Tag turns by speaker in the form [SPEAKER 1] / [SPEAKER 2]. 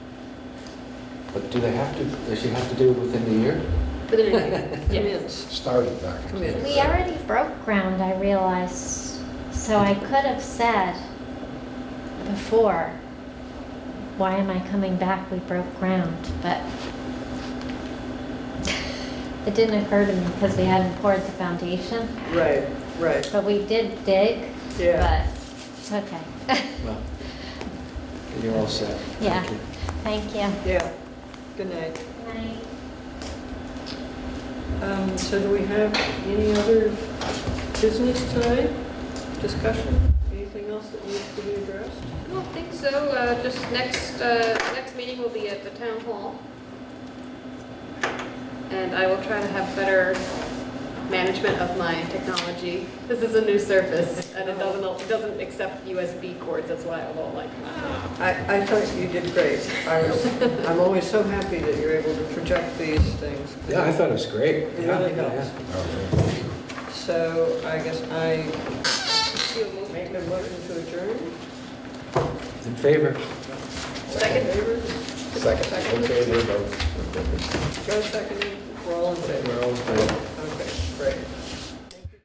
[SPEAKER 1] But do they have to, does she have to do it within the year?
[SPEAKER 2] Within a year,
[SPEAKER 3] Come
[SPEAKER 2] yeah.
[SPEAKER 3] in,
[SPEAKER 4] started back.
[SPEAKER 3] come in.
[SPEAKER 5] We already broke ground, I realize, so I could have said before, why am I coming back? We broke ground, but it didn't occur to me because we hadn't poured the foundation,
[SPEAKER 3] Right, right.
[SPEAKER 5] but we did dig, but
[SPEAKER 3] Yeah.
[SPEAKER 5] it's okay.
[SPEAKER 1] Well, then you're all set.
[SPEAKER 5] Yeah.
[SPEAKER 1] Thank you.
[SPEAKER 5] Thank you.
[SPEAKER 3] Yeah, good night.
[SPEAKER 5] Good night.
[SPEAKER 3] Um, So do we have any other business tonight? Discussion? Anything else that needs to be addressed?
[SPEAKER 2] I don't think so, uh, just next, uh, next meeting will be at the town hall. And I will try to have better management of my technology. This is a new surface, and it doesn't, it doesn't accept USB cords, that's why I'm all like, ah.
[SPEAKER 3] I, I thought you did great. I was, I'm always so happy that you're able to project these things.
[SPEAKER 1] Yeah, I thought it was great.
[SPEAKER 3] It really
[SPEAKER 1] Yeah, yeah.
[SPEAKER 3] helps. So I guess I make a motion to adjourn.
[SPEAKER 1] In favor?
[SPEAKER 3] Second. favor?
[SPEAKER 4] Second, okay, there you go.
[SPEAKER 3] Joe seconded, we're all in favor.
[SPEAKER 1] We're all in favor.